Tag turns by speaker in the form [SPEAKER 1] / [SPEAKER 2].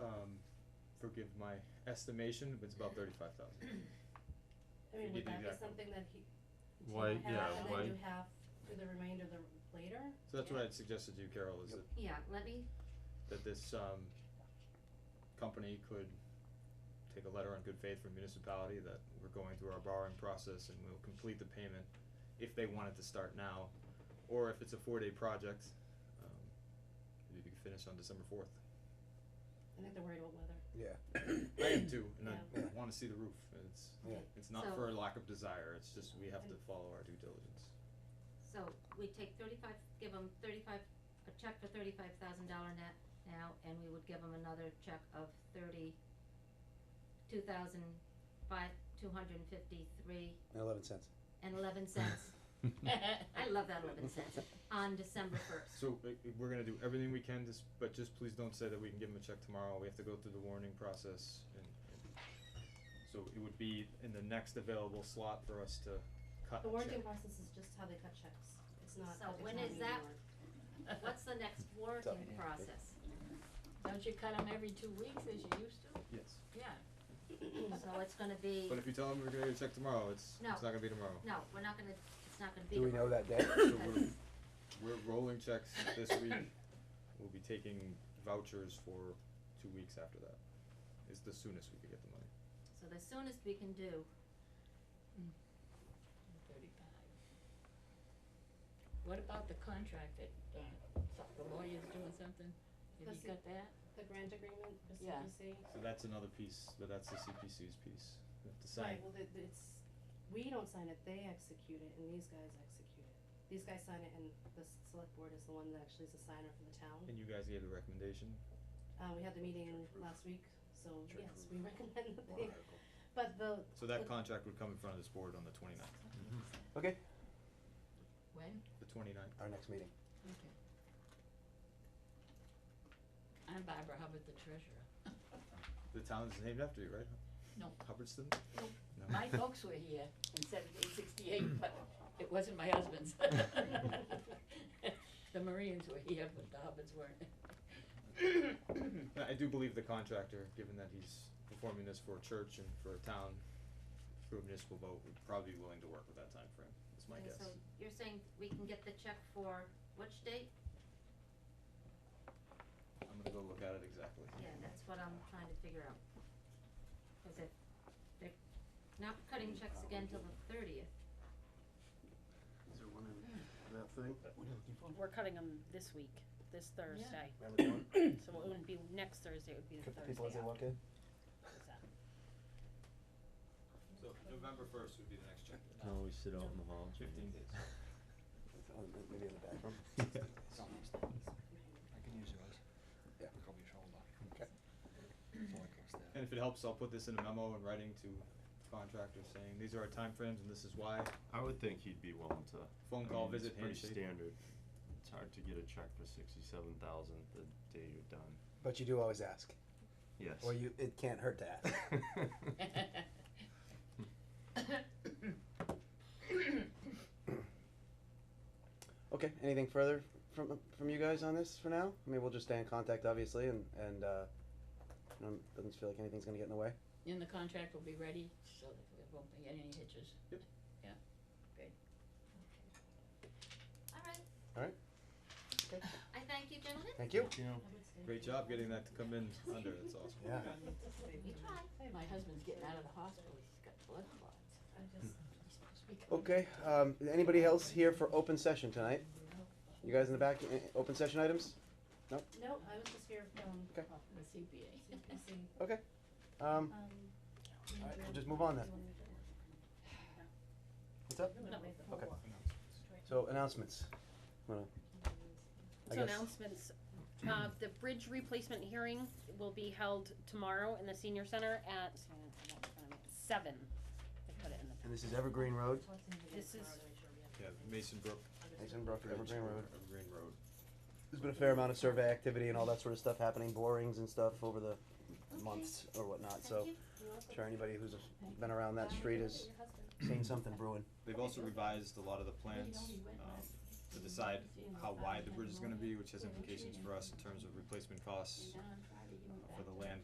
[SPEAKER 1] um, forgive my estimation, but it's about thirty-five thousand.
[SPEAKER 2] I
[SPEAKER 1] You
[SPEAKER 2] mean, would
[SPEAKER 1] did
[SPEAKER 2] that be
[SPEAKER 1] exactly.
[SPEAKER 2] something that he, to
[SPEAKER 3] Why-
[SPEAKER 2] have,
[SPEAKER 3] yeah,
[SPEAKER 2] and
[SPEAKER 3] why-
[SPEAKER 2] then do half for the remainder of the later?
[SPEAKER 1] So that's what I'd suggested to you, Carol, is
[SPEAKER 4] Yep.
[SPEAKER 1] that,
[SPEAKER 2] Yeah, let me,
[SPEAKER 1] that this, um, company could take a letter on good faith from municipality that we're going through our borrowing process and we'll complete the payment if they wanted to start now, or if it's a four-day project, um, maybe we could finish on December fourth.
[SPEAKER 2] I think they're worried about weather.
[SPEAKER 4] Yeah,
[SPEAKER 1] I am too, and I
[SPEAKER 4] Yeah.
[SPEAKER 1] wanna see the roof, it's,
[SPEAKER 4] Yeah.
[SPEAKER 1] it's not
[SPEAKER 5] So-
[SPEAKER 1] for lack of desire, it's just we have to follow our due diligence.
[SPEAKER 5] So we take thirty-five, give them thirty-five, a check for thirty-five thousand dollar net now, and we would give them another check of thirty, two thousand five, two hundred and fifty-three
[SPEAKER 4] and eleven cents.
[SPEAKER 5] and eleven cents. I love that eleven cents, on December first.
[SPEAKER 1] So i- i- we're gonna do everything we can, just, but just please don't say that we can give them a check tomorrow, we have to go through the warning process and, and so it would be in the next available slot for us to cut
[SPEAKER 2] The
[SPEAKER 1] a check.
[SPEAKER 2] warranting process is just how they cut checks, it's not.
[SPEAKER 5] So
[SPEAKER 2] at the
[SPEAKER 5] when
[SPEAKER 2] town
[SPEAKER 5] is
[SPEAKER 2] meeting
[SPEAKER 5] that-
[SPEAKER 2] warrant.
[SPEAKER 5] What's the next working process?
[SPEAKER 6] Don't you cut them every two weeks as you used to?
[SPEAKER 1] Yes,
[SPEAKER 6] Yeah.
[SPEAKER 5] So it's gonna be,
[SPEAKER 1] but if you tell them we're gonna get a check tomorrow, it's, it's
[SPEAKER 5] No.
[SPEAKER 1] not gonna be tomorrow.
[SPEAKER 5] no, we're not gonna, it's not gonna be.
[SPEAKER 4] Do we know that day?
[SPEAKER 1] So we're, we're rolling checks this week, we'll be taking vouchers for two weeks after that, is the soonest we could get the money.
[SPEAKER 5] So the soonest we can do
[SPEAKER 6] Thirty-five. What about the contract that, uh, so- the lawyer's doing something? Have
[SPEAKER 2] That's
[SPEAKER 6] you
[SPEAKER 2] the-
[SPEAKER 6] got that?
[SPEAKER 2] The grant agreement, the
[SPEAKER 6] Yeah.
[SPEAKER 2] CPC,
[SPEAKER 1] So that's another piece, but that's the CPC's piece, we have to sign.
[SPEAKER 2] right, well, it, it's, we don't sign it, they execute it, and these guys execute it. These guys sign it, and the s- select board is the one that actually is a signer for the town.
[SPEAKER 1] And you guys gave the recommendation,
[SPEAKER 2] Uh, we had the meeting
[SPEAKER 4] Church roof.
[SPEAKER 2] last week, so
[SPEAKER 4] Church
[SPEAKER 2] yes,
[SPEAKER 4] roof.
[SPEAKER 2] we recommend that
[SPEAKER 4] Warrant
[SPEAKER 2] they,
[SPEAKER 4] article.
[SPEAKER 2] but the,
[SPEAKER 1] so that contract would come in front of this board on the twenty-ninth,
[SPEAKER 3] Mm-hmm.
[SPEAKER 4] Okay,
[SPEAKER 6] When?
[SPEAKER 1] the twenty-ninth.
[SPEAKER 4] our next meeting.
[SPEAKER 6] Okay. I'm Barbara Hubbard, the treasurer.
[SPEAKER 1] The town is named after you, right?
[SPEAKER 6] No.
[SPEAKER 1] Hubbardston?
[SPEAKER 6] Nope.
[SPEAKER 1] No.
[SPEAKER 6] My folks were here in seventeen sixty-eight, but it wasn't my husband's. The Marines were here, but the Hubbards weren't.
[SPEAKER 1] No, I do believe the contractor, given that he's performing this for a church and for a town, for a municipal vote, would probably be willing to work with that timeframe, is my
[SPEAKER 5] Okay,
[SPEAKER 1] guess.
[SPEAKER 5] So you're saying we can get the check for which date?
[SPEAKER 1] I'm gonna go look at it exactly.
[SPEAKER 5] Yeah, that's what I'm trying to figure out. Cause if they're not cutting checks again till the thirtieth,
[SPEAKER 7] Is there one in that thing?
[SPEAKER 8] We're cutting them this week, this Thursday, so it wouldn't be next Thursday, it would be the
[SPEAKER 4] Cut
[SPEAKER 8] Thursday
[SPEAKER 4] the people as they walk in.
[SPEAKER 8] after that.
[SPEAKER 1] So November first would be the next check.
[SPEAKER 3] Can always sit out in the hall. Jamie.
[SPEAKER 1] Fifteen days.
[SPEAKER 4] Oh, m- Maybe in the bathroom.
[SPEAKER 7] I can use yours.
[SPEAKER 4] Yeah.
[SPEAKER 7] Pick up your shoulder.
[SPEAKER 4] Okay.
[SPEAKER 7] It's only goes there.
[SPEAKER 1] And if it helps, I'll put this in a memo in writing to contractors saying, these are our timeframes and this is why.
[SPEAKER 3] I would think he'd be willing to.
[SPEAKER 1] Phone
[SPEAKER 3] I
[SPEAKER 1] call,
[SPEAKER 3] mean, it's
[SPEAKER 1] visit, handshake.
[SPEAKER 3] Pretty standard. It's hard to get a check for sixty-seven thousand the day you're done.
[SPEAKER 4] But you do always ask,
[SPEAKER 3] Yes.
[SPEAKER 4] or you, it can't hurt to ask. Okay, anything further from, from you guys on this for now? I mean, we'll just stay in contact, obviously, and, and, uh, um, doesn't feel like anything's gonna get in the way.
[SPEAKER 6] And the contract will be ready, so that there won't be any hitches.
[SPEAKER 5] alright.
[SPEAKER 4] Alright.
[SPEAKER 5] Okay. I thank you gentlemen,
[SPEAKER 4] Thank you.
[SPEAKER 3] You know,
[SPEAKER 2] I would say.
[SPEAKER 1] Great job getting that to come in under, it's awesome.
[SPEAKER 4] Yeah.
[SPEAKER 5] we tried.
[SPEAKER 6] My husband's getting out of the hospital, he's got blood clots.
[SPEAKER 2] I just,
[SPEAKER 6] He's supposed to be coming
[SPEAKER 4] Okay, um, anybody else here for open session tonight? You guys in the back, eh, open session items?
[SPEAKER 2] no, I was just here, um,
[SPEAKER 4] Okay.
[SPEAKER 6] from The CPA.
[SPEAKER 2] CPC,
[SPEAKER 4] Um,
[SPEAKER 2] um.
[SPEAKER 4] alright, we'll just move on then. What's up?
[SPEAKER 2] No, wait, the whole
[SPEAKER 4] Okay.
[SPEAKER 2] walk.
[SPEAKER 4] So announcements. Wanna- I
[SPEAKER 8] So
[SPEAKER 4] guess-
[SPEAKER 8] announcements, uh, the bridge replacement hearing will be held tomorrow in the senior center at, so I'm gonna put that in front of me, seven. I put it in the-
[SPEAKER 4] And this is Evergreen Road,
[SPEAKER 2] Talk to him again
[SPEAKER 8] This
[SPEAKER 2] tomorrow
[SPEAKER 8] is-
[SPEAKER 2] to make sure we have
[SPEAKER 1] Yeah, Mason Brook.
[SPEAKER 4] Mason Brook,
[SPEAKER 1] Bridge
[SPEAKER 4] Evergreen Road.
[SPEAKER 1] over Evergreen Road.
[SPEAKER 4] There's been a fair amount of survey activity and all that sort of stuff happening, borings and stuff over the months or whatnot, so.
[SPEAKER 5] Thank you.
[SPEAKER 4] I'm Sure anybody who's been around that street has
[SPEAKER 2] your husband.
[SPEAKER 4] seen something brewing.
[SPEAKER 1] They've also revised a lot of the plans, um, to decide how wide the bridge is gonna be, which has implications for us in terms of replacement costs uh, for the land